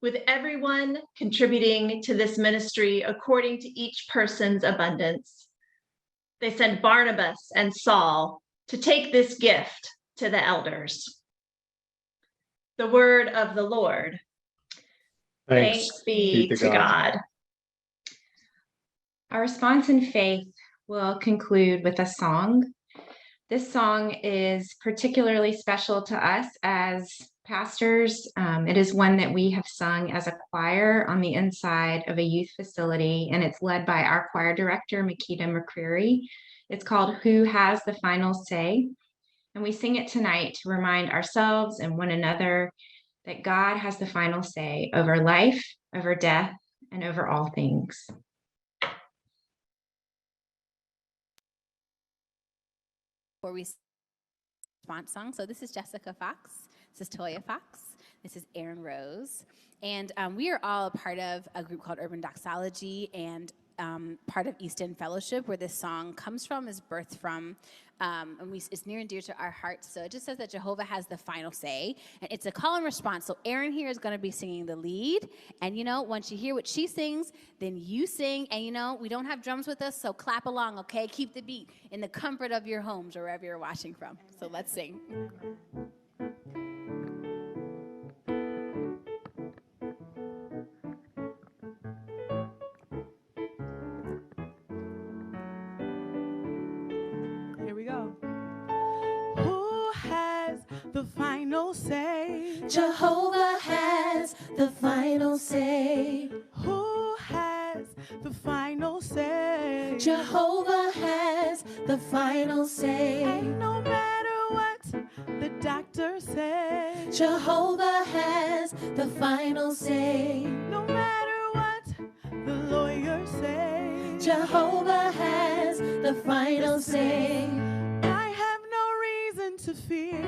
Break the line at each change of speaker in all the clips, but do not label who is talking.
with everyone contributing to this ministry according to each person's abundance. They sent Barnabas and Saul to take this gift to the elders. The word of the Lord. Thanks be to God.
Our response in faith will conclude with a song. This song is particularly special to us as pastors. Um, it is one that we have sung as a choir on the inside of a youth facility, and it's led by our choir director, Makita McCreary. It's called Who Has the Final Say? And we sing it tonight to remind ourselves and one another that God has the final say over life, over death, and over all things.
before we response song. So this is Jessica Fox. This is Toya Fox. This is Aaron Rose. And um, we are all a part of a group called Urban Doxology and um, part of East End Fellowship, where this song comes from, is birthed from. Um, and we, it's near and dear to our hearts. So it just says that Jehovah has the final say. And it's a call and response. So Aaron here is going to be singing the lead. And you know, once you hear what she sings, then you sing. And you know, we don't have drums with us, so clap along, okay? Keep the beat in the comfort of your homes or wherever you're watching from. So let's sing.
Here we go. Who has the final say? Jehovah has the final say. Who has the final say? Jehovah has the final say. And no matter what the doctor says, Jehovah has the final say. No matter what the lawyer says, Jehovah has the final say. I have no reason to fear.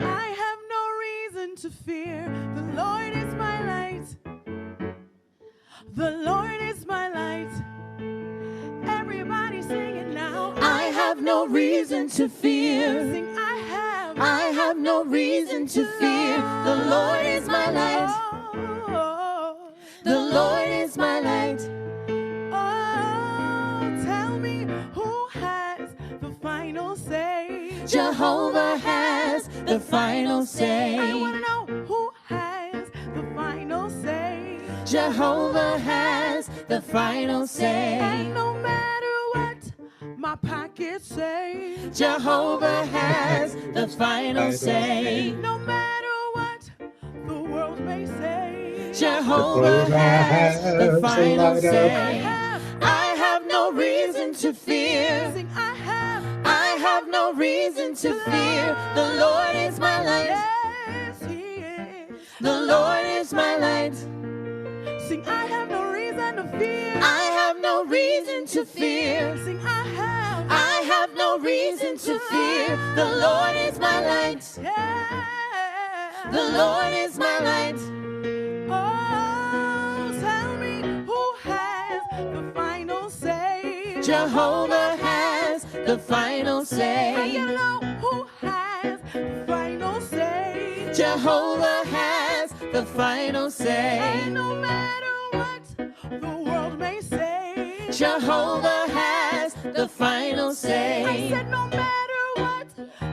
I have no reason to fear. The Lord is my light. The Lord is my light. Everybody sing it now. I have no reason to fear. Sing, I have. I have no reason to fear. The Lord is my light. The Lord is my light. Oh, tell me who has the final say. Jehovah has the final say. I want to know who has the final say. Jehovah has the final say. And no matter what my pockets say, Jehovah has the final say. No matter what the world may say, Jehovah has the final say. I have no reason to fear. I have, no reason to fear. The Lord is my light. The Lord is my light. Sing, I have no reason to fear. I have no reason to fear. Sing, I have. I have no reason to fear. The Lord is my light. The Lord is my light. Oh, tell me who has the final say. Jehovah has the final say. I gotta know who has the final say. Jehovah has the final say. And no matter what the world may say, Jehovah has the final say. I said no matter what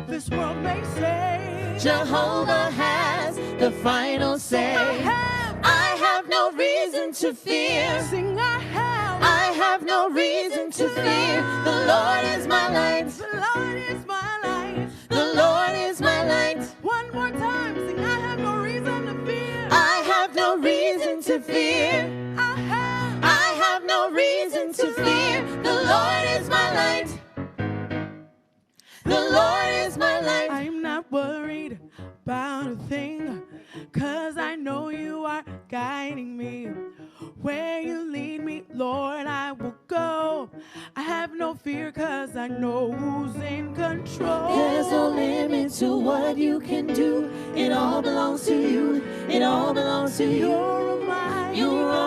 this world may say, Jehovah has the final say. I have, no reason to fear. Sing, I have. I have no reason to fear. The Lord is my light. The Lord is my light. The Lord is my light. One more time, sing, I have no reason to fear. I have no reason to fear. I have, I have no reason to fear. The Lord is my light. The Lord is my life. I'm not worried about a thing, cause I know you are guiding me. Where you lead me, Lord, I will go. I have no fear, cause I know who's in control. There's no limit to what you can do. It all belongs to you. It all belongs to you. You're mine. You're all